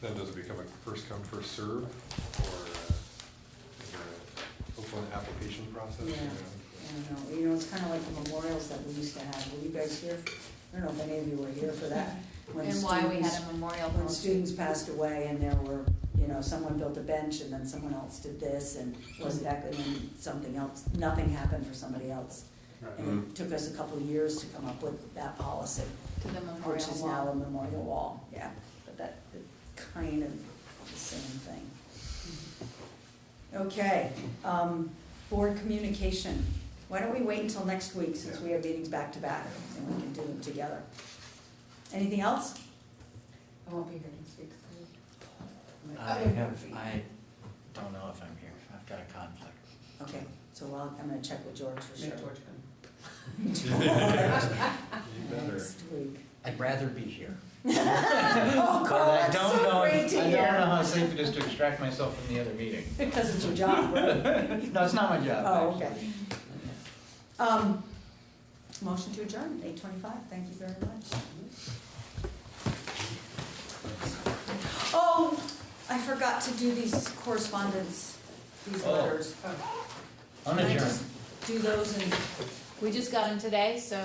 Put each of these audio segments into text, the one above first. Then does it become a first come, first serve, or uh, is there a open application process? Yeah, I don't know, you know, it's kinda like the memorials that we used to have, were you guys here? I don't know if any of you were here for that. when And why we had students- a memorial When policy. students passed away and there were, you know, someone built a bench and then someone else did this and wasn't that good and something else, nothing happened for somebody else. And it took us a couple of years to come up with that policy, To the which memorial is now a wall. memorial wall, yeah, but that, it's kind of the same thing. Okay, um, board communication, why don't we wait until next week since we have meetings back to back and we can do them together? Anything else? I won't be here next week. so- I have, I don't know if I'm here, I've got a conflict. Okay, so I'll, I'm gonna check with George for sure. Make George come. You better. Next week. I'd rather be here. Oh, But Carl, I that's don't so know. great to I don't know hear. how safe it is to extract myself from the other meeting. Because it's your job, right? No, it's not my job, Oh, actually. okay. Um, motion to adjourn, eight twenty-five, thank you very much. Oh, I forgot to do these correspondence, these Oh. letters. I'm Can I adjourned. just Do those and We just got them today, so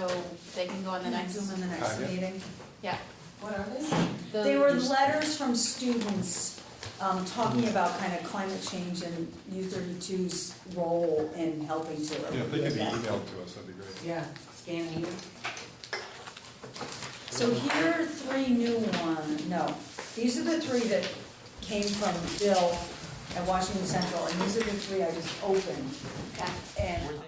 they can go on the next. do them in the Ah, next yeah. meeting. Yeah. What are they? The- They were letters from students, um, talking about kind of climate change and U 32s role in helping to. Yeah, if they alleviate can be that. emailed to us, that'd be great. Yeah, scanning you. So here are three new one, no, these are the three that came from Bill at Washington Central, and these are the three I just opened. Okay. And